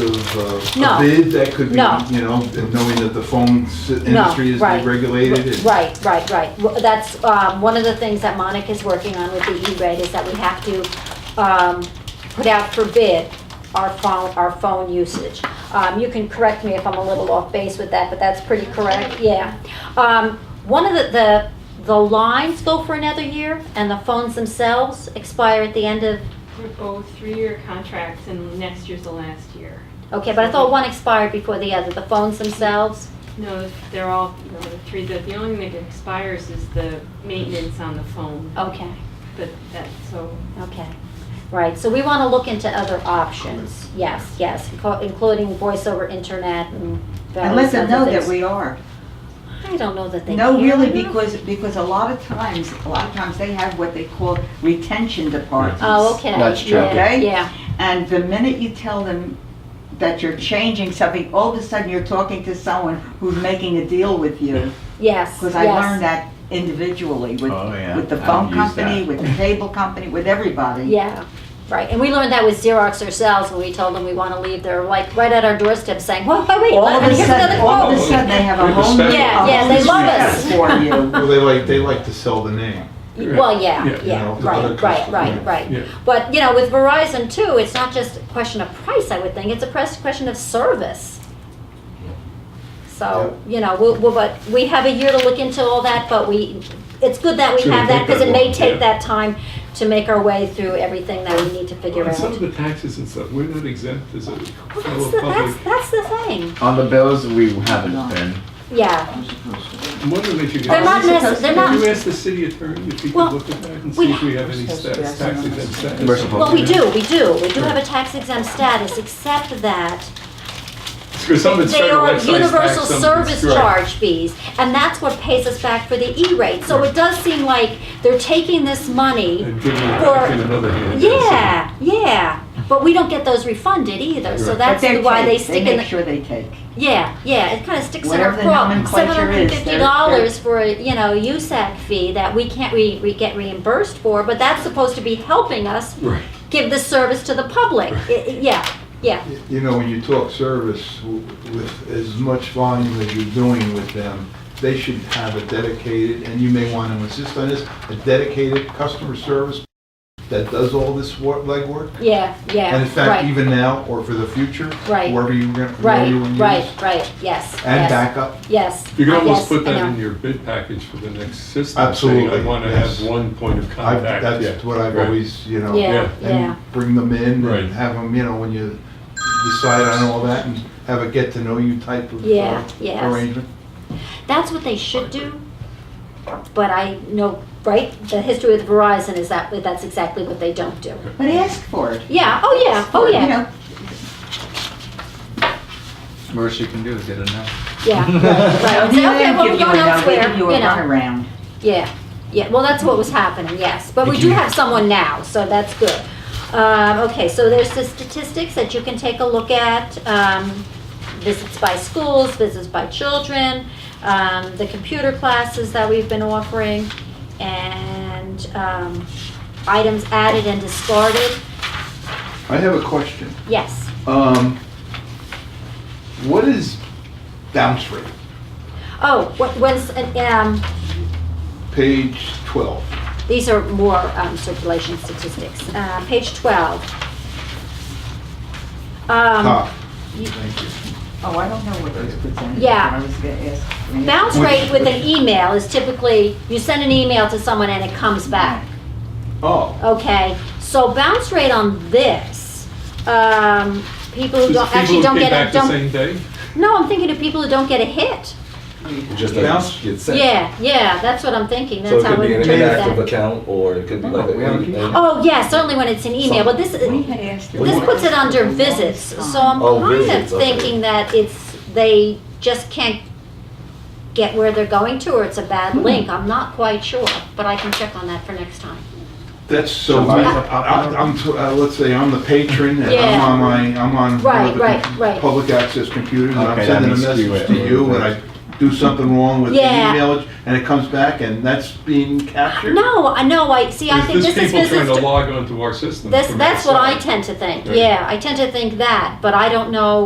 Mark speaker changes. Speaker 1: uh, a- a
Speaker 2: No.
Speaker 1: bid that could be,
Speaker 2: No.
Speaker 1: you know, and knowing that the phone s-
Speaker 2: No,
Speaker 1: industry is
Speaker 2: right.
Speaker 1: deregulated. it-
Speaker 2: Right, right, right. Well, That's um, one of the things that Monica's working on with the E-rate is that we have to um, put out for bid our phone, our phone usage. Um, You can correct me if I'm a little off base with that, but that's pretty correct, yeah. Um, One of the, the, the lines go for another year and the phones themselves expire at the end of,
Speaker 3: We're both three-year contracts and next year's the last year.
Speaker 2: okay, but I thought one expired before the other, the phones themselves?
Speaker 3: No, they're all, no, the three, the, the only thing that expires is the maintenance on the phone,
Speaker 2: Okay.
Speaker 3: but that, so.
Speaker 2: Okay, right, so we want to look into other options, yes, yes, inco- including voice over internet and
Speaker 4: And
Speaker 2: various
Speaker 4: let them know
Speaker 2: other
Speaker 4: that
Speaker 2: things.
Speaker 4: we are.
Speaker 2: I don't know that they care.
Speaker 4: No, really, because, because a lot of times, a lot of times they have what they call retention departments.
Speaker 2: Oh, okay.
Speaker 5: That's true.
Speaker 2: yeah,
Speaker 4: Okay?
Speaker 2: Yeah,
Speaker 4: And the minute you tell them that you're changing something, all of a sudden you're talking to someone who's making a deal with you.
Speaker 2: yes,
Speaker 4: Because I learned
Speaker 2: yes,
Speaker 4: that individually with,
Speaker 5: Oh, yeah.
Speaker 4: with the
Speaker 5: I
Speaker 4: phone
Speaker 5: use that.
Speaker 4: company, with the cable company, with everybody.
Speaker 2: yeah, right, and we learned that with Xerox ourselves, when we told them we want to leave, they're like, right at our doorstep saying, whoa, wait, wait,
Speaker 4: All of
Speaker 2: let-
Speaker 4: a
Speaker 2: here's another
Speaker 4: sudden, all of a
Speaker 2: quote.
Speaker 4: sudden, they have
Speaker 1: We
Speaker 4: a
Speaker 1: have a
Speaker 4: whole new,
Speaker 1: special-
Speaker 2: Yeah,
Speaker 4: a
Speaker 2: yeah,
Speaker 4: whole
Speaker 2: they
Speaker 4: new
Speaker 2: love
Speaker 4: set
Speaker 2: us.
Speaker 4: for you.
Speaker 1: Well, they like, they like to sell the name.
Speaker 2: Well, yeah,
Speaker 6: Yeah,
Speaker 2: yeah,
Speaker 1: you know, the other
Speaker 2: right, right,
Speaker 1: customers,
Speaker 2: right,
Speaker 6: yeah.
Speaker 2: right. But, you know, with Verizon too, it's not just a question of price, I would think, it's a press- question of service. So, you know, we'll, we'll- but we have a year to look into all that, but we, it's good that we
Speaker 6: Sure,
Speaker 2: have that
Speaker 6: make
Speaker 2: because it
Speaker 6: that
Speaker 2: may
Speaker 6: work,
Speaker 2: take
Speaker 6: yeah.
Speaker 2: that time to make our way through everything that we need to figure
Speaker 6: And some
Speaker 2: out.
Speaker 6: of the taxes and stuff, we're not exempt as a
Speaker 2: Well, that's
Speaker 6: fellow
Speaker 2: the,
Speaker 6: public.
Speaker 2: that's, that's the thing,
Speaker 5: On the bills, we haven't been.
Speaker 2: yeah.
Speaker 6: I'm wondering if you could.
Speaker 2: They're not, necess- they're
Speaker 6: Could you
Speaker 2: not,
Speaker 6: ask the city attorney if he
Speaker 2: Well,
Speaker 6: could look at that and
Speaker 2: we-
Speaker 6: see if we have any stats, tax exempt status?
Speaker 5: We're supposed
Speaker 2: well, we
Speaker 5: Yeah.
Speaker 2: do, we do, we do have a tax exempt status, except that
Speaker 6: Because some of it's
Speaker 2: They
Speaker 6: federal
Speaker 2: are
Speaker 6: excise tax,
Speaker 2: universal
Speaker 6: some of
Speaker 2: service
Speaker 6: it's- right.
Speaker 2: charge fees, and that's what pays us back for the E-rate. So it does seem like they're taking this money,
Speaker 6: And giving it
Speaker 2: for-
Speaker 6: back in another hand.
Speaker 2: yeah, yeah, but we don't get those refunded either, so
Speaker 6: Right.
Speaker 4: But
Speaker 2: that's
Speaker 4: they're
Speaker 2: why they
Speaker 4: take-
Speaker 2: stick
Speaker 4: They
Speaker 2: in
Speaker 4: make
Speaker 2: the,
Speaker 4: sure they take.
Speaker 2: yeah, yeah, it kinda sticks in our
Speaker 4: Whatever the
Speaker 2: craw. Seven
Speaker 4: nomenclature
Speaker 2: hundred and
Speaker 4: is,
Speaker 2: fifty
Speaker 4: they're-
Speaker 2: dollars for, a, you know, USAC fee that we can't, we, we get reimbursed for, but that's supposed to be helping us
Speaker 6: Right.
Speaker 2: give the service to the public. I- I- Yeah, yeah,
Speaker 1: You know, when you talk service w- with as much volume as you're doing with them, they should have a dedicated, and you may want to insist on this, a dedicated customer service that does all this wor- legwork.
Speaker 2: yeah, yeah,
Speaker 1: And in
Speaker 2: right.
Speaker 1: fact, even now or for the future,
Speaker 2: Right.
Speaker 1: wherever you're going to
Speaker 2: Right,
Speaker 1: use.
Speaker 2: right, right, yes.
Speaker 1: And
Speaker 2: yes,
Speaker 1: backup.
Speaker 2: Yes.
Speaker 6: You can
Speaker 2: uh,
Speaker 6: almost
Speaker 2: yes,
Speaker 6: put
Speaker 2: I
Speaker 6: that in
Speaker 2: know.
Speaker 6: your bid package for the next system.
Speaker 1: Absolutely,
Speaker 6: saying, I want to
Speaker 1: yes.
Speaker 6: have one point of
Speaker 1: I've-
Speaker 6: contact.
Speaker 1: That's
Speaker 6: Yeah.
Speaker 1: what I've
Speaker 6: Right.
Speaker 1: always, you know.
Speaker 2: Yeah,
Speaker 6: Yeah.
Speaker 2: yeah,
Speaker 1: and bring them in
Speaker 6: Right.
Speaker 1: and have them, you know, when you decide on all that and have a get-to-know-you type of
Speaker 2: Yeah,
Speaker 1: uh,
Speaker 2: yes.
Speaker 1: arrangement.
Speaker 2: that's what they should do. But I know, right, the history with Verizon is that, that's exactly what they don't do.
Speaker 4: But ask for it.
Speaker 2: Yeah, oh yeah, oh
Speaker 4: You
Speaker 2: yeah,
Speaker 4: know,
Speaker 5: Worst you can do is get a no.
Speaker 2: yeah, right, right. Say,
Speaker 4: they
Speaker 2: Okay, well,
Speaker 4: don't give
Speaker 2: we're
Speaker 4: you
Speaker 2: going
Speaker 4: a number, they
Speaker 2: elsewhere,
Speaker 4: give
Speaker 2: you
Speaker 4: you a
Speaker 2: know,
Speaker 4: runaround.
Speaker 2: yeah, yeah, well, that's what was happening, yes. But we
Speaker 5: Did
Speaker 2: do
Speaker 5: you-
Speaker 2: have someone now, so that's good. Um, okay, so there's the statistics that you can take a look at, um, visits by schools, visits by children, um, the computer classes that we've been offering, and, um, items added and discarded,
Speaker 1: I have a question.
Speaker 2: yes.
Speaker 1: Um, What is bounce rate?
Speaker 2: Oh, wh- when's, um,
Speaker 1: Page 12.
Speaker 2: these are more, um, circulation statistics, uh, page twelve. Um,
Speaker 1: Top.
Speaker 2: you-
Speaker 1: Thank you.
Speaker 4: Oh, I don't know what those percentages are.
Speaker 2: Yeah.
Speaker 4: I was gonna ask. Renee.
Speaker 2: Bounce rate with an email is typically, you send an email to someone and it comes back,
Speaker 1: Oh,
Speaker 2: okay? So bounce rate on this, um, people who
Speaker 6: Just
Speaker 2: don't,
Speaker 6: people
Speaker 2: actually
Speaker 6: who
Speaker 2: don't
Speaker 6: came
Speaker 2: get
Speaker 6: back
Speaker 2: a,
Speaker 6: the
Speaker 2: don't,
Speaker 6: same day?
Speaker 2: no, I'm thinking of people who don't get a hit.
Speaker 7: It just
Speaker 1: Bounce?
Speaker 7: doesn't get sent.
Speaker 2: Yeah, yeah, that's what I'm thinking,
Speaker 7: So
Speaker 2: that's
Speaker 7: it
Speaker 2: how
Speaker 7: could
Speaker 2: we
Speaker 7: be an
Speaker 2: interpret
Speaker 7: inactive
Speaker 2: that.
Speaker 7: account, or it could be like
Speaker 1: No, we haven't-
Speaker 7: an email.
Speaker 2: Oh, yeah, certainly when it's an email, but this,
Speaker 4: We
Speaker 2: this
Speaker 4: had asked. her about
Speaker 2: puts it under
Speaker 4: for a long
Speaker 2: visits, so
Speaker 4: time.
Speaker 2: I'm
Speaker 7: Oh,
Speaker 2: kind of
Speaker 7: visits, okay.
Speaker 2: thinking that it's, they just can't get where they're going to, or it's a bad link, I'm not quite sure, but I can check on that for next time.
Speaker 1: that's so,
Speaker 5: July.
Speaker 1: I- I- I'm, t- uh, let's say I'm the patron and I'm
Speaker 2: Yeah.
Speaker 1: on my, I'm on one
Speaker 2: Right,
Speaker 1: of the
Speaker 2: right,
Speaker 1: com-
Speaker 2: right.
Speaker 1: public access computers and I'm
Speaker 5: Okay, that
Speaker 1: sending a
Speaker 5: may skew
Speaker 1: message
Speaker 5: it
Speaker 1: to
Speaker 5: a little
Speaker 1: you
Speaker 5: bit.
Speaker 1: and I do something wrong with the
Speaker 2: Yeah.
Speaker 1: email and it comes back and that's being captured?
Speaker 2: No, I know, I, see, I think
Speaker 6: Is
Speaker 2: this
Speaker 6: this
Speaker 2: is
Speaker 6: people trying to
Speaker 2: business,
Speaker 6: log onto our system?
Speaker 2: this,
Speaker 6: from
Speaker 2: that's what I
Speaker 6: outside?
Speaker 2: tend to think,
Speaker 6: Right.
Speaker 2: yeah, I tend to think that, but I don't know